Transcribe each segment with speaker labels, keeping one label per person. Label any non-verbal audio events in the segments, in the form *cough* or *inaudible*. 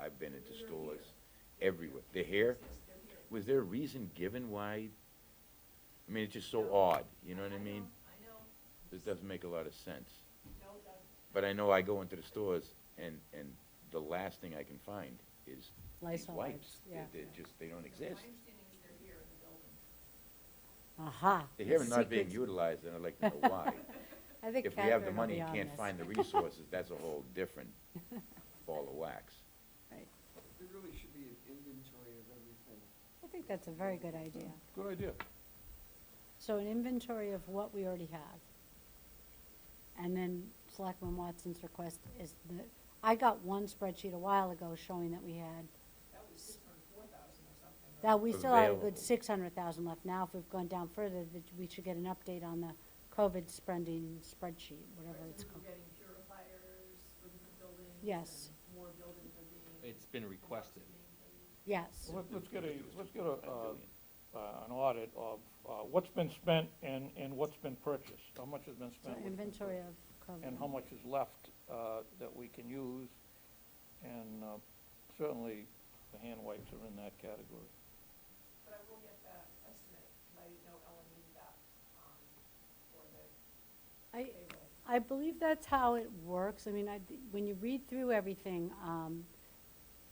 Speaker 1: I've been into stores everywhere. They're here? Was there a reason given why? I mean, it's just so odd, you know what I mean?
Speaker 2: I know,
Speaker 1: This doesn't make a lot of sense.
Speaker 2: no, the-
Speaker 1: But I know I go into the stores and, and the last thing I can find is these
Speaker 3: Lysol
Speaker 1: wipes.
Speaker 3: wipes,
Speaker 1: They-
Speaker 3: yeah.
Speaker 1: They're just, they don't exist.
Speaker 2: my understanding is they're here in the building.
Speaker 3: Aha.
Speaker 1: They're here and not being
Speaker 3: secret-
Speaker 1: utilized, and I'd like to
Speaker 3: *laughs*
Speaker 1: know why.
Speaker 3: I think
Speaker 1: If we have the
Speaker 3: Catherine will
Speaker 1: money
Speaker 3: be
Speaker 1: and
Speaker 3: on
Speaker 1: can't
Speaker 3: this.
Speaker 1: find the resources, that's a whole
Speaker 3: *laughs*
Speaker 1: different ball of wax.
Speaker 3: Right.
Speaker 4: There really should be an inventory of everything.
Speaker 3: I think that's a very good idea.
Speaker 1: Good idea.
Speaker 3: So an inventory of what we already have. And then Selectman Watson's request is the, I got one spreadsheet a while ago showing that we had,
Speaker 2: That was six hundred and four thousand or something. right?
Speaker 3: that we still had a
Speaker 1: Available.
Speaker 3: good six hundred thousand left. Now, if we've gone down further, that we should get an update on the COVID spending spreadsheet, whatever
Speaker 2: Because
Speaker 3: it's
Speaker 2: we
Speaker 3: called.
Speaker 2: were getting purifiers for the buildings.
Speaker 3: Yes.
Speaker 2: and More buildings are being.
Speaker 5: It's been requested.
Speaker 3: Yes,
Speaker 6: Let- Let's get a, let's get a, uh, uh, an audit of uh, what's been spent and, and what's been purchased. How much has been
Speaker 3: so
Speaker 6: spent? what's been
Speaker 3: inventory
Speaker 6: purchased,
Speaker 3: of COVID.
Speaker 6: And how much is left uh, that we can use. And uh, certainly, the hand wipes are in that category.
Speaker 2: But I will get the estimate, 'cause I didn't know Ellen needed that, um, for the
Speaker 3: I,
Speaker 2: payroll.
Speaker 3: I believe that's how it works. I mean, I, when you read through everything, um,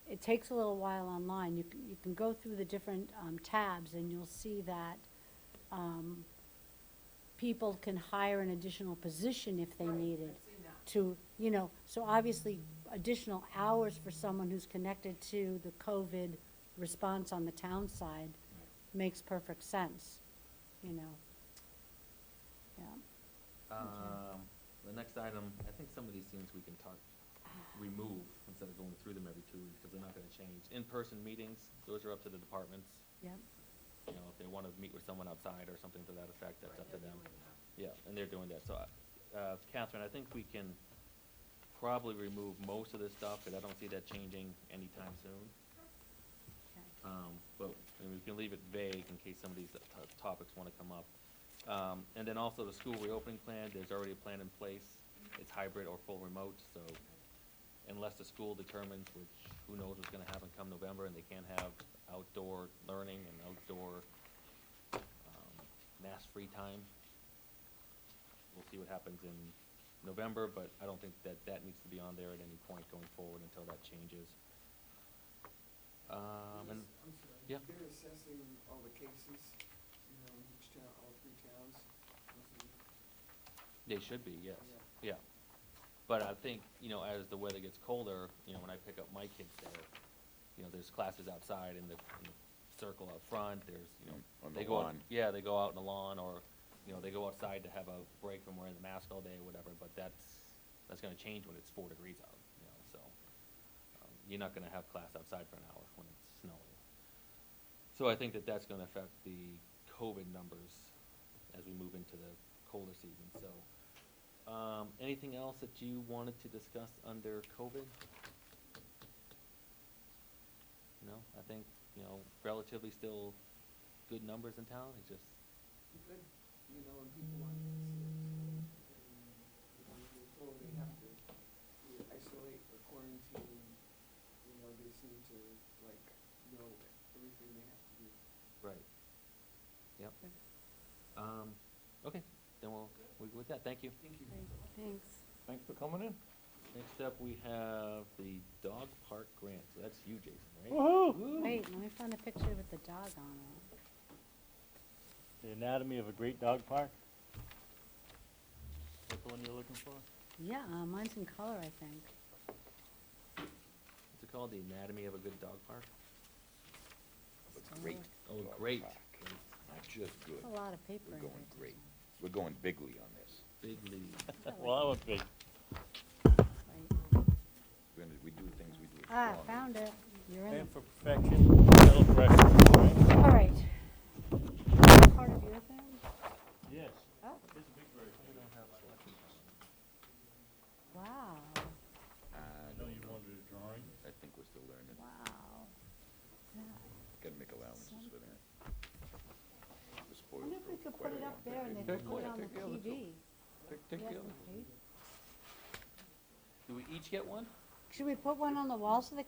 Speaker 3: it takes a little while online. You can, you can go through the different, um, tabs and you'll see that, um, people can hire an additional position if they
Speaker 2: Right,
Speaker 3: need it
Speaker 2: I've seen that.
Speaker 3: to, you know, so obviously additional hours for someone who's connected to the COVID response on the town side makes perfect sense, you know? Yeah.
Speaker 5: Um, the next item, I think some of these things we can talk, remove instead of going through them every two weeks, because they're not gonna change. In-person meetings, those are up to the departments,
Speaker 3: Yep.
Speaker 5: you know, if they wanna meet with someone outside or something to that effect, that's up to them.
Speaker 2: Doing that.
Speaker 5: Yeah, and they're doing that, so, I- uh, Catherine, I think we can probably remove most of this stuff, because I don't see that changing anytime soon.
Speaker 3: Okay.
Speaker 5: Um, but, and we can leave it vague in case some of these to- topics wanna come up. Um, and then also the school reopening plan, there's already a plan in place. It's hybrid or full remote, so unless the school determines, which who knows what's gonna happen come November, and they can't have outdoor learning and outdoor, um, mass free time. We'll see what happens in November, but I don't think that that needs to be on there at any point going forward until that changes. Um, and.
Speaker 4: Yes, I'm sorry.
Speaker 5: yeah.
Speaker 4: They're assessing all the cases, you know, in each town, all three towns. Mhm.
Speaker 5: They should be, yes, yeah. But I think, you know, as the weather gets colder, you know, when I pick up my kids there, you know, there's classes outside in the, in the circle out front, there's, you know.
Speaker 1: On
Speaker 5: they
Speaker 1: the
Speaker 5: go out-
Speaker 1: lawn.
Speaker 5: Yeah, they go out in the lawn, or, you know, they go outside to have a break from wearing the mask all day or whatever, but that's, that's gonna change when it's four degrees out, you know, so. um, You're not gonna have class outside for an hour when it's snowing. So I think that that's gonna affect the COVID numbers as we move into the colder season, so. Um, anything else that you wanted to discuss under COVID? No, I think, you know, relatively still good numbers in town, it's just,
Speaker 4: Good, you know, and people want to see it. And, you know, when they go, they have to either isolate or quarantine, you know, they seem to like know everything they have to do.
Speaker 5: right. Yep. Um, okay, then we'll, we with that, thank you.
Speaker 4: Thank you.
Speaker 3: Great, Thanks.
Speaker 6: Thanks for coming in.
Speaker 5: Next up, we have the dog park grant, so that's you, Jason, right?
Speaker 6: Woo-hoo!
Speaker 3: Wait, let me find a picture with the dog on it.
Speaker 7: The Anatomy of a Great Dog Park? That's the one you're looking for?
Speaker 3: Yeah, uh, mine's in color, I think.
Speaker 5: What's it called, The Anatomy of a Good Dog Park?
Speaker 1: But great.
Speaker 5: Oh,
Speaker 1: dog
Speaker 5: great,
Speaker 1: park. Not just good,
Speaker 3: That's a lot of paper
Speaker 1: we're
Speaker 3: in
Speaker 1: going
Speaker 3: there.
Speaker 1: great. We're going bigly on this.
Speaker 5: big lead.
Speaker 7: *laughs* Well, I would be.
Speaker 3: Right.
Speaker 1: We're gonna, we do things, we do it
Speaker 3: Ah,
Speaker 1: strong.
Speaker 3: found it. You're in.
Speaker 7: Aim
Speaker 3: it.
Speaker 7: for perfection, settle for excellence, right?
Speaker 3: All right. Is that Part of your thing?
Speaker 7: Yes.
Speaker 3: Oh,
Speaker 7: It's a big version.
Speaker 3: wow,
Speaker 1: Uh,
Speaker 7: I know you wanted a drawing.
Speaker 1: I think we're still learning.
Speaker 3: wow. Yeah.
Speaker 1: Gotta make allowances for that. We're
Speaker 3: I
Speaker 1: spoiled
Speaker 3: wonder if
Speaker 1: for
Speaker 3: we could
Speaker 1: quite
Speaker 3: put
Speaker 1: a
Speaker 3: it up
Speaker 1: long
Speaker 3: there
Speaker 1: period.
Speaker 3: and then
Speaker 6: Take
Speaker 3: put it
Speaker 6: one,
Speaker 3: on the
Speaker 6: take the other two.
Speaker 3: TV.
Speaker 6: Take, take
Speaker 3: Yeah,
Speaker 6: the other.
Speaker 3: okay.
Speaker 5: Do we each get one?
Speaker 3: Should we put one on the wall so they